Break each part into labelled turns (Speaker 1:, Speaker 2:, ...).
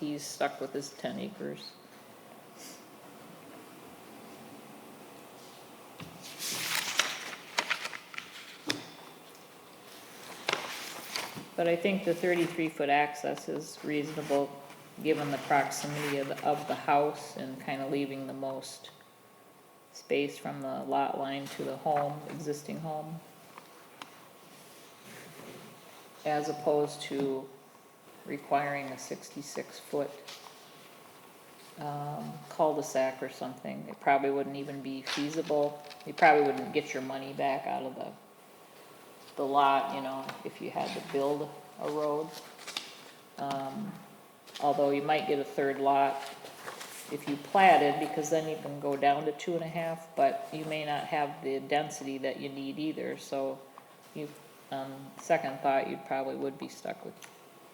Speaker 1: he's stuck with his ten acres. But I think the thirty-three foot access is reasonable, given the proximity of, the- of the house and kind of leaving the most space from the lot line to the home, existing home. As opposed to requiring a sixty-six foot um, cul-de-sac or something. It probably wouldn't even be feasible. You probably wouldn't get your money back out of the, the lot, you know, if you had to build a road. Um, Although you might get a third lot if you platted, because then you can go down to two and a half, but you may not have the density that you need either, so you, um, second thought, you probably would be stuck with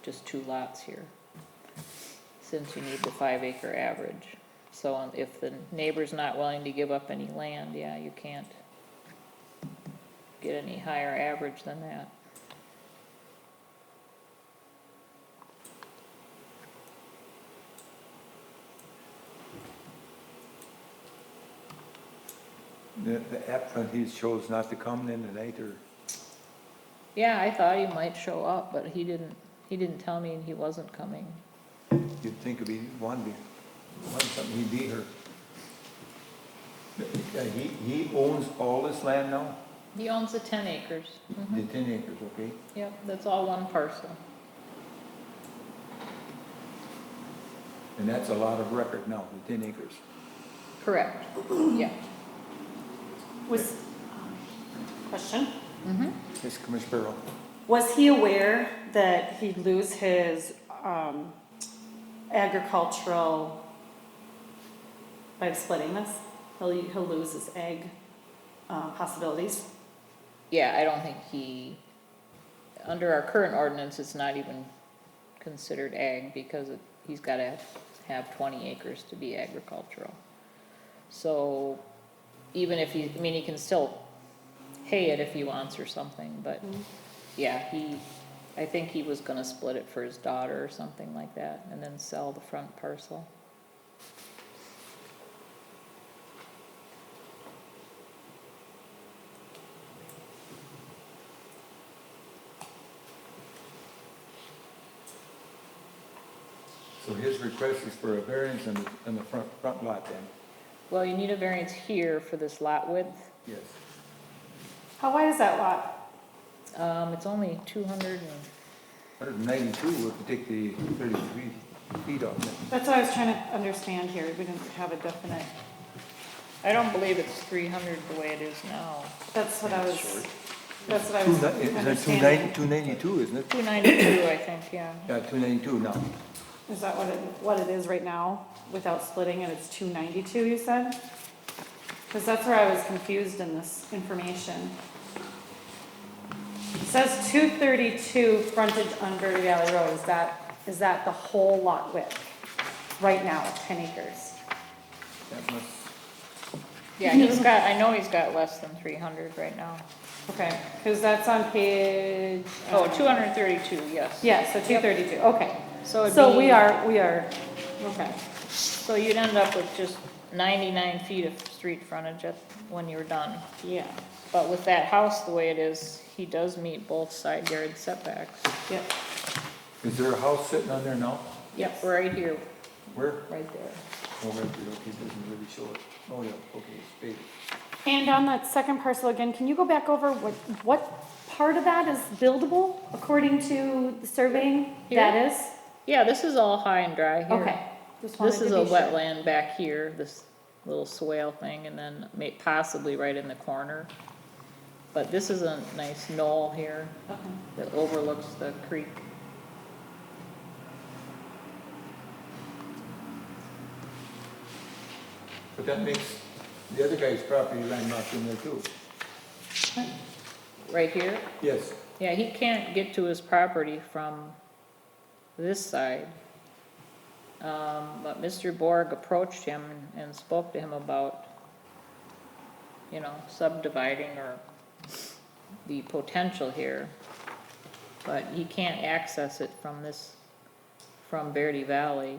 Speaker 1: just two lots here, since you need the five acre average. So um, if the neighbor's not willing to give up any land, yeah, you can't get any higher average than that.
Speaker 2: The the applicant, he chose not to come in tonight, or,
Speaker 1: Yeah, I thought he might show up, but he didn't, he didn't tell me he wasn't coming.
Speaker 2: you'd think if he wanted, to- wanted something, he'd be here. Uh, He, he owns all this land now?
Speaker 1: He owns the ten acres. Mm-hmm.
Speaker 2: The ten acres, okay?
Speaker 1: Yep, that's all one parcel.
Speaker 2: And that's a lot of record now, the ten acres.
Speaker 1: Correct, yeah.
Speaker 3: Was, question,
Speaker 2: Yes, Commissioner Barrow.
Speaker 3: was he aware that he'd lose his um, agricultural by splitting this? He'll, he'll lose his egg uh, possibilities?
Speaker 1: Yeah, I don't think he, under our current ordinance, it's not even considered ag because it- he's gotta have twenty acres to be agricultural. So even if he, I mean, he can still hay it if he wants or something, but yeah, he, I think he was gonna split it for his daughter or something like that and then sell the front parcel.
Speaker 2: So his request is for a variance on the, on the front, front lot then?
Speaker 1: Well, you need a variance here for this lot width.
Speaker 2: Yes.
Speaker 3: How wide is that lot?
Speaker 1: Um, it's only two hundred and
Speaker 2: Hundred and ninety-two would take the thirty-three feet off it.
Speaker 3: That's what I was trying to understand here, we didn't have a definite,
Speaker 1: I don't believe it's three hundred the way it is now.
Speaker 3: that's what I was, that's what I
Speaker 2: Two
Speaker 3: was
Speaker 2: ni- Is that two ninety,
Speaker 3: understanding.
Speaker 2: two ninety-two, isn't it?
Speaker 1: Two ninety-two, I think, yeah.
Speaker 2: Yeah, two ninety-two now.
Speaker 3: Is that what it, what it is right now, without splitting it, it's two ninety-two, you said? Cause that's where I was confused in this information. It says two thirty-two frontage on Verde Valley Road, is that, is that the whole lot width? Right now, ten acres?
Speaker 2: That must,
Speaker 1: Yeah, he's got, I know he's got less than three hundred right now.
Speaker 3: Okay, cause that's on page.
Speaker 1: Oh,
Speaker 3: uh,
Speaker 1: two hundred and thirty-two, yes.
Speaker 3: Yeah, so two thirty-two, okay.
Speaker 1: So it'd
Speaker 3: So we
Speaker 1: be-
Speaker 3: are, we are, okay.
Speaker 1: So you'd end up with just ninety-nine feet of street frontage at, when you're done.
Speaker 3: Yeah,
Speaker 1: But with that house the way it is, he does meet both side yard setbacks.
Speaker 3: yep.
Speaker 2: is there a house sitting on there now?
Speaker 1: Yep, right here,
Speaker 2: Where?
Speaker 1: right there.
Speaker 2: Oh, right, there, okay, it doesn't really show it. Oh, yeah, okay, it's faded.
Speaker 3: And on that second parcel again, can you go back over what, what part of that is buildable according to the surveying?
Speaker 1: Here?
Speaker 3: That is?
Speaker 1: Yeah, this is all high and dry here.
Speaker 3: Okay. Just wanted
Speaker 1: This
Speaker 3: to
Speaker 1: is a
Speaker 3: be sure.
Speaker 1: wetland back here, this little swale thing, and then may, possibly right in the corner. But this is a nice knoll here
Speaker 3: Okay.
Speaker 1: that overlooks the creek.
Speaker 2: But that makes the other guy's property line not in there too.
Speaker 1: Right here,
Speaker 2: Yes,
Speaker 1: yeah, he can't get to his property from this side. Um, but Mr. Borg approached him and spoke to him about, you know, subdividing or the potential here. But he can't access it from this, from Verde Valley.